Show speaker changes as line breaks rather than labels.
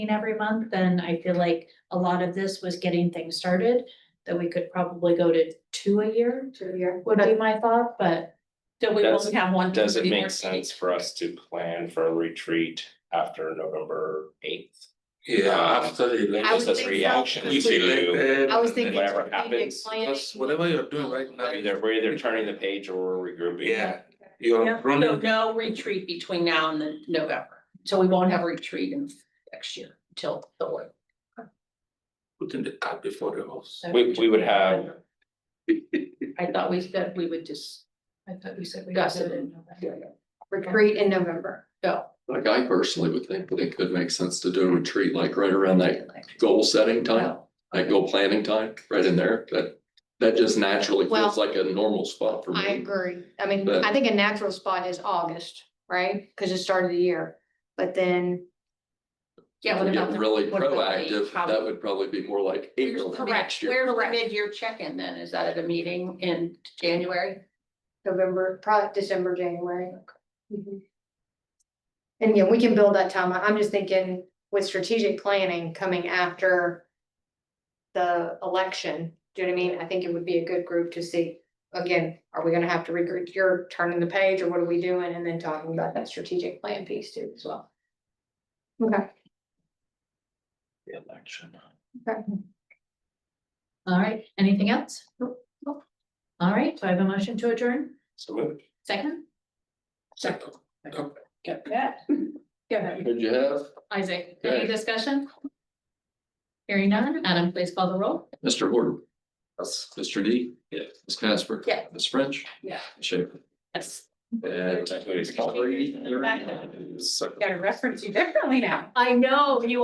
every month, then I feel like a lot of this was getting things started. That we could probably go to two a year
Two year.
would be my thought, but that we
Does-
only have one.
Does it
more
make
meeting.
sense for us to plan for a retreat after November eighth?
Yeah, after the
I would
Just as
election.
think so.
reaction
It's
to
elected
I was
and
thinking
then-
whatever happens.
Because whatever you're doing right now,
Either we're either turning the page or we're regrouping.
yeah, you're
Yeah.
So
running.
no retreat between now and the November, so we won't have a retreat in next year till the one.
Putting the cat before the horse.
We we would have
I thought we said we would just,
I thought we said we.
Gus
did
it.
in November.
Retreat in November.
go.
Like I personally would think that it could make sense to do a retreat like right around that goal setting time, that goal planning time, right in there, that. That just naturally feels like a normal spot for
I
me.
agree. I mean,
But-
I think a natural spot is August, right? Cause it started the year, but then.
Yeah,
If
what
we
about
Get
the?
really
what about the
proactive,
prob-
that would probably be more like
Where's-
April of
Correct,
next year.
where's the mid-year check-in then? Is that at a meeting in January?
November, probably December, January. Mhm. And yeah, we can build that time. I'm just thinking with strategic planning coming after the election, do you know what I mean? I think it would be a good group to see, again, are we gonna have to regroup, you're turning the page or what are we doing? And then talking about that strategic plan piece too as well. Okay,
the election.
All right, anything else? All right, do I have a motion to adjourn?
So moved.
Second,
Second. Get that.
go ahead,
Could you have
Isaac, any
Okay.
discussion? Hearing none, Adam, please call the roll.
Mr. Horton? Mr. D?
Yeah.
Ms. Casper?
Yeah.
Ms. French?
Yeah.
Shaver.
Yes.
And.
Technically, it's-
Three, thirty,
Gotta reference you differently now.
I know, you